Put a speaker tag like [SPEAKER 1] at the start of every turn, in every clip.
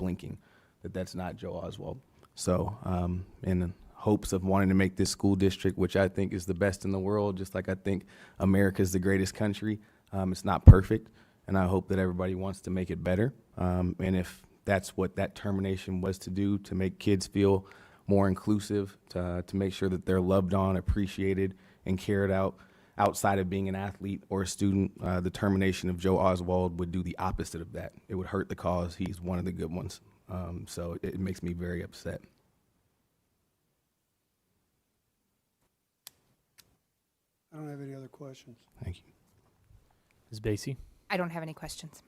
[SPEAKER 1] blinking that that's not Joe Oswald. So, um, in hopes of wanting to make this school district, which I think is the best in the world, just like I think America's the greatest country, um, it's not perfect, and I hope that everybody wants to make it better. Um, and if that's what that termination was to do, to make kids feel more inclusive, to, uh, to make sure that they're loved on, appreciated, and cared out outside of being an athlete or a student. Uh, the termination of Joe Oswald would do the opposite of that. It would hurt the cause. He's one of the good ones. Um, so it, it makes me very upset.
[SPEAKER 2] I don't have any other questions.
[SPEAKER 1] Thank you.
[SPEAKER 3] Ms. Basie,
[SPEAKER 4] I don't have any questions.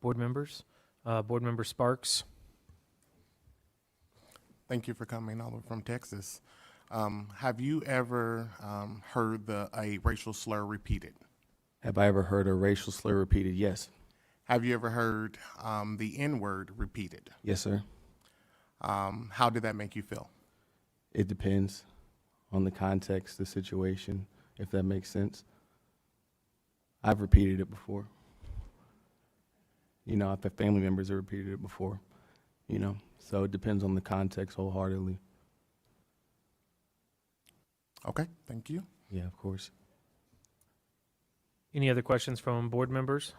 [SPEAKER 3] board members, uh, board member Sparks,
[SPEAKER 5] Thank you for coming all the way from Texas. Um, have you ever um, heard the, a racial slur repeated?
[SPEAKER 1] Have I ever heard a racial slur repeated? Yes.
[SPEAKER 5] Have you ever heard um, the N word repeated?
[SPEAKER 1] Yes, sir.
[SPEAKER 5] Um, how did that make you feel?
[SPEAKER 1] It depends on the context, the situation, if that makes sense. I've repeated it before. You know, I've had family members that repeated it before, you know, so it depends on the context wholeheartedly.
[SPEAKER 5] Okay, thank you.
[SPEAKER 1] Yeah, of course.
[SPEAKER 3] any other questions from board members?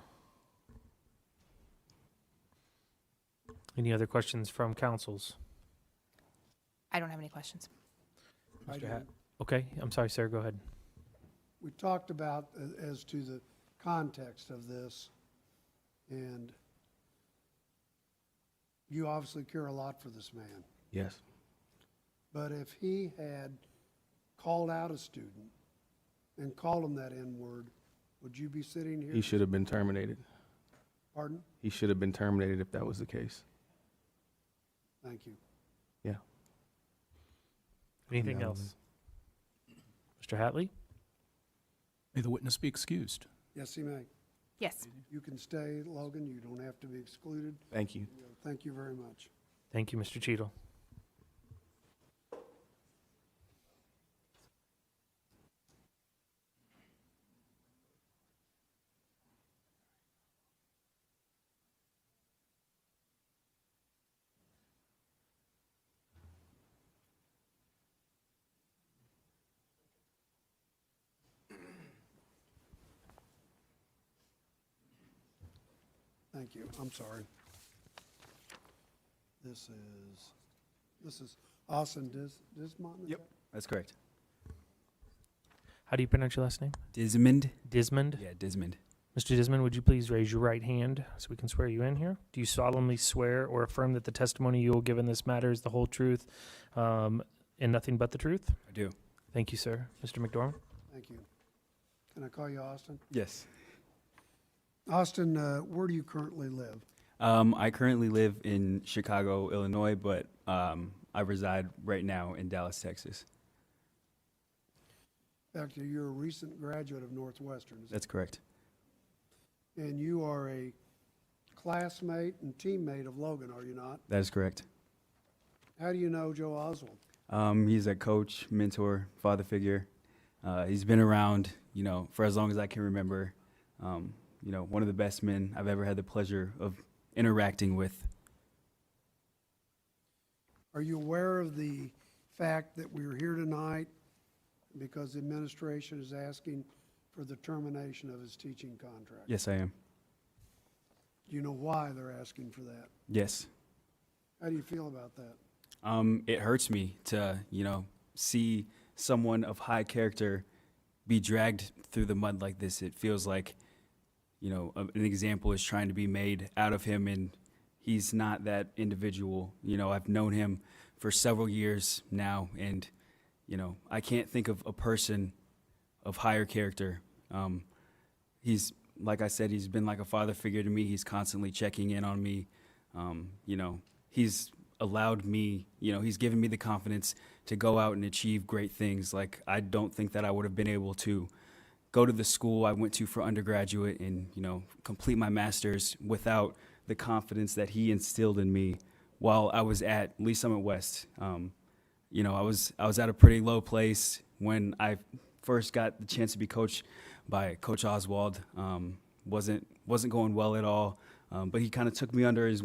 [SPEAKER 3] Any other questions from councils?
[SPEAKER 4] I don't have any questions.
[SPEAKER 2] I
[SPEAKER 3] Mr. Hat-
[SPEAKER 2] do.
[SPEAKER 3] Okay, I'm sorry, Sarah, go ahead.
[SPEAKER 2] We talked about a- as to the context of this, and you obviously care a lot for this man.
[SPEAKER 1] Yes.
[SPEAKER 2] But if he had called out a student and called him that N-word, would you be sitting here?
[SPEAKER 1] He should have been terminated.
[SPEAKER 2] Pardon?
[SPEAKER 1] He should have been terminated if that was the case.
[SPEAKER 2] Thank you.
[SPEAKER 1] Yeah.
[SPEAKER 3] Anything
[SPEAKER 1] down,
[SPEAKER 3] else? Mr. Hatley?
[SPEAKER 6] May the witness be excused.
[SPEAKER 2] Yes, he may.
[SPEAKER 4] Yes.
[SPEAKER 2] You can stay, Logan. You don't have to be excluded.
[SPEAKER 1] Thank you.
[SPEAKER 2] Thank you very much.
[SPEAKER 3] Thank you, Mr. Cheadle.
[SPEAKER 2] Thank you, I'm sorry. This is, this is Austin Dis, Dismont? is
[SPEAKER 7] Yep. That's correct.
[SPEAKER 3] How do you pronounce your last name?
[SPEAKER 7] Dismond?
[SPEAKER 3] Dismond?
[SPEAKER 7] Yeah, Dismond.
[SPEAKER 3] Mr. Dismond, would you please raise your right hand so we can swear you in here? Do you solemnly swear or affirm that the testimony you will give in this matter is the whole truth um, and nothing but the truth?
[SPEAKER 7] I do.
[SPEAKER 3] Thank you, sir. Mr. McDormand?
[SPEAKER 2] that- Thank you. Can I call you Austin?
[SPEAKER 7] Yes.
[SPEAKER 2] Austin, uh, where do you currently live?
[SPEAKER 7] Um, I currently live in Chicago, Illinois, but um, I reside right now in Dallas, Texas.
[SPEAKER 2] In fact, you're a recent graduate of Northwestern, is that-
[SPEAKER 7] That's correct.
[SPEAKER 2] and you are a classmate and teammate of Logan, are you not?
[SPEAKER 7] That is correct.
[SPEAKER 2] How do you know Joe Oswald?
[SPEAKER 7] Um, he's a coach, mentor, father figure. Uh, he's been around, you know, for as long as I can remember. Um, you know, one of the best men I've ever had the pleasure of interacting with.
[SPEAKER 2] Are you aware of the fact that we're here tonight because the administration is asking for the termination of his teaching contract?
[SPEAKER 7] Yes, I am.
[SPEAKER 2] Do you know why they're asking for that?
[SPEAKER 7] Yes.
[SPEAKER 2] How do you feel about that?
[SPEAKER 7] Um, it hurts me to, you know, see someone of high character be dragged through the mud like this. It feels like, you know, a- an example is trying to be made out of him, and he's not that individual. You know, I've known him for several years now, and, you know, I can't think of a person of higher character. Um, he's, like I said, he's been like a father figure to me. He's constantly checking in on me. Um, you know, he's allowed me, you know, he's given me the confidence to go out and achieve great things. Like, I don't think that I would have been able to go to the school I went to for undergraduate and, you know, complete my master's without the confidence that he instilled in me while I was at Lee Summit West. Um, you know, I was I was at a pretty low place when I first got the chance to be coached by Coach Oswald. Um, wasn't wasn't going well at all. Um, but he kind of took me under his